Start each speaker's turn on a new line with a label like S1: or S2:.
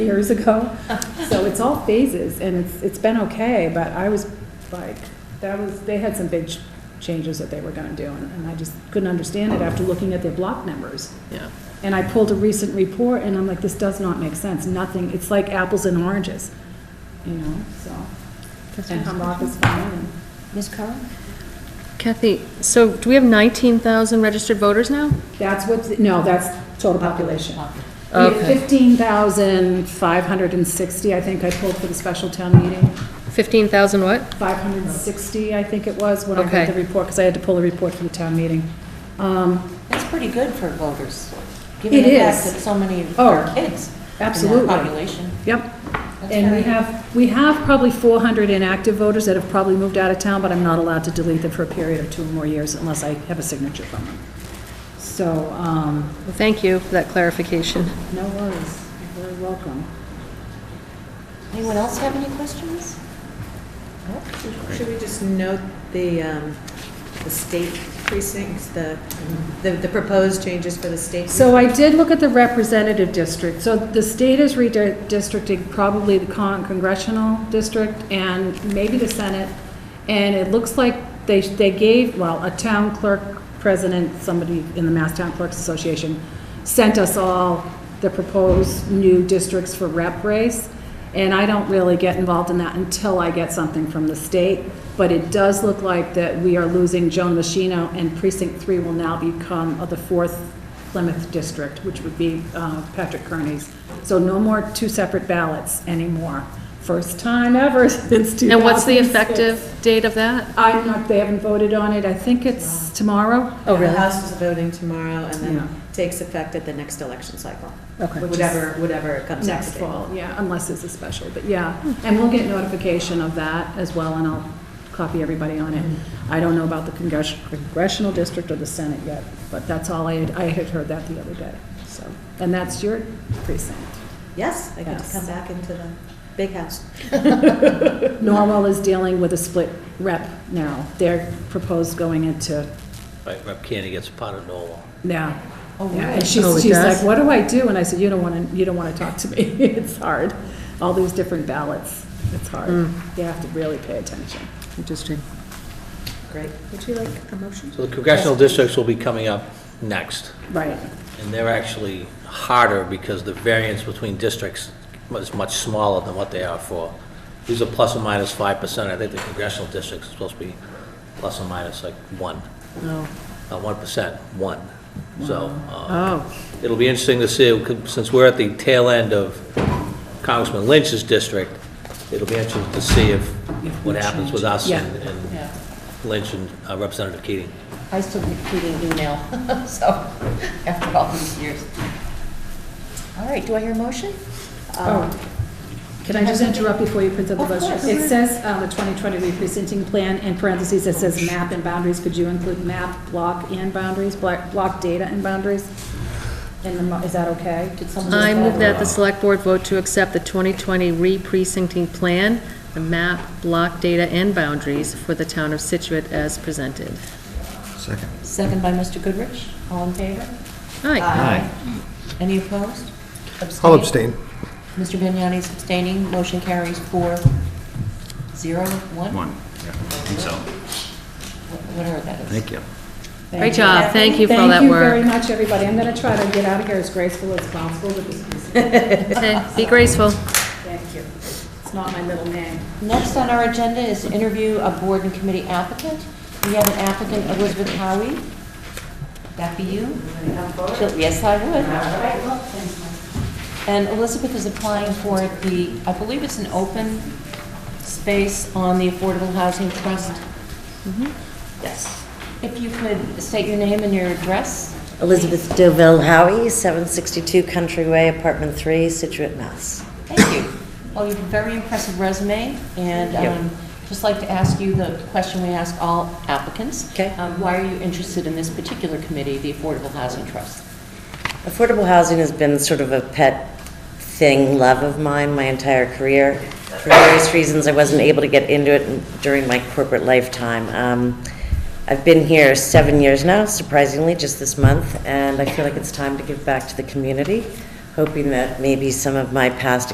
S1: years ago. So it's all phases, and it's, it's been okay, but I was like, that was, they had some big ch- changes that they were gonna do, and and I just couldn't understand it after looking at their block numbers.
S2: Yeah.
S1: And I pulled a recent report, and I'm like, this does not make sense, nothing, it's like apples and oranges, you know, so. And Humrock is fine, and
S3: Ms. Curran?
S2: Kathy, so do we have 19,000 registered voters now?
S1: that's what, no, that's total population. We have
S2: Okay.
S1: fifteen thousand five hundred and sixty, I think I pulled for the special town meeting.
S2: 15,000 what?
S1: 560, I think it was, when I read
S2: Okay.
S1: the report, because I had to pull a report from the town meeting. Um,
S3: That's pretty good for voters, given
S1: It
S3: the fact
S1: is.
S3: that so many of
S1: Oh,
S3: our kids in
S1: absolutely.
S3: that population.
S1: Yep,
S3: That's
S1: and we
S3: very-
S1: have, we have probably 400 inactive voters that have probably moved out of town, but I'm not allowed to delete them for a period of two or more years unless I have a signature from them. So, um,
S2: Well, Thank you for that clarification.
S1: no worries, you're very welcome.
S3: Anyone else have any questions?
S4: Should we just note the, um, the state precincts, the, the the proposed changes for the state?
S1: So I did look at the representative district. So the state is redistricting probably the con- congressional district and maybe the Senate. And it looks like they, they gave, well, a town clerk president, somebody in the Mass Town Clerks Association, sent us all the proposed new districts for rep race. And I don't really get involved in that until I get something from the state. But it does look like that we are losing Joan Machino and precinct three will now become of the fourth Plymouth district, which would be uh, Patrick Kearney's. So no more two separate ballots anymore. First time ever since 2006.
S2: And what's the effective date of that?
S1: I'm not, they haven't voted on it. I think it's tomorrow.
S2: Oh, really?
S4: The House is voting tomorrow and
S1: Yeah.
S4: then takes effect at the next election cycle,
S2: Okay.
S1: Which is
S4: whatever, whatever it comes out to
S1: Next
S4: be.
S1: fall, yeah, unless it's a special, but yeah. And we'll get notification of that as well, and I'll copy everybody on it. I don't know about the congress- congressional district or the Senate yet, but that's all I, had- I had heard that the other day, so. And that's your precinct.
S4: Yes, I get to
S1: Yes.
S4: come back into the big house.
S1: Norwell is dealing with a split rep now. They're proposed going into,
S5: Right, Rep. Candy gets part of Norwell.
S1: now.
S3: Oh,
S1: Yeah,
S3: really?
S1: And she's,
S2: Oh, it
S1: she's
S2: does?
S1: like, what do I do? And I said, you don't want to, you don't want to talk to me. It's hard. All these different ballots, it's hard. You have to really pay attention.
S2: Interesting.
S4: Great.
S3: Would you like a motion?
S5: So the congressional districts will be coming up next,
S1: Right,
S5: and they're actually harder because the variance between districts is much smaller than what they are for. These are plus or minus five percent. I think the congressional districts are supposed to be plus or minus like one,
S2: Oh,
S5: not one percent, one. So, uh,
S2: oh,
S5: it'll be interesting to see, since we're at the tail end of Congressman Lynch's district, it'll be interesting to see if, what happens with us
S1: Yeah.
S5: and and Lynch and uh, Representative Keating.
S3: I still get Keating email, so, after all these years. All right, do I hear a motion?
S1: Oh. Can I just interrupt before you print out the
S3: Of
S1: budget?
S3: course.
S1: It says, um, the 2020 reprinting plan, in parentheses, it says map and boundaries. Could you include map, block, and boundaries, block, block data and boundaries? In the, mo- is that okay? Did someone?
S2: I move that the select board vote to accept the 2020 re-precincting plan, the map, block data, and boundaries for the town of Situate as presented.
S6: Second.
S3: Second by Mr. Goodrich, all in favor?
S2: Aye.
S3: Any opposed?
S6: I'll abstain.
S3: Mr. Vignani's abstaining, motion carries four, zero, one?
S7: One, yeah, I think so.
S3: Wh- Whatever that is.
S7: Thank you.
S2: Great job, thank you for all that
S1: Thank
S2: work.
S1: you very much, everybody. I'm going to try to get out of here as graceful as possible with this piece.
S2: Okay, be graceful.
S1: Thank you. It's not my middle name.
S3: Next on our agenda is interview of board and committee applicant. We have an applicant, Elizabeth Howie. Would That be you? She'll- Yes, I would. And Elizabeth is applying for the, I believe it's an open space on the Affordable Housing Trust. Mm-hmm. Yes. If you could state your name and your address.
S8: Elizabeth Doville Howie, 762 Country Way, Apartment 3, Situate, Mass.
S3: Thank you. Well, you have a very impressive resume, and
S8: Yep.
S3: um, just like to ask you the question we ask all applicants.
S8: Okay.
S3: Um, Why are you interested in this particular committee, the Affordable Housing Trust?
S8: Affordable housing has been sort of a pet thing, love of mine, my entire career. For various reasons, I wasn't able to get into it during my corporate lifetime. Um, I've been here seven years now, surprisingly, just this month, and I feel like it's time to give back to the community, hoping that maybe some of my past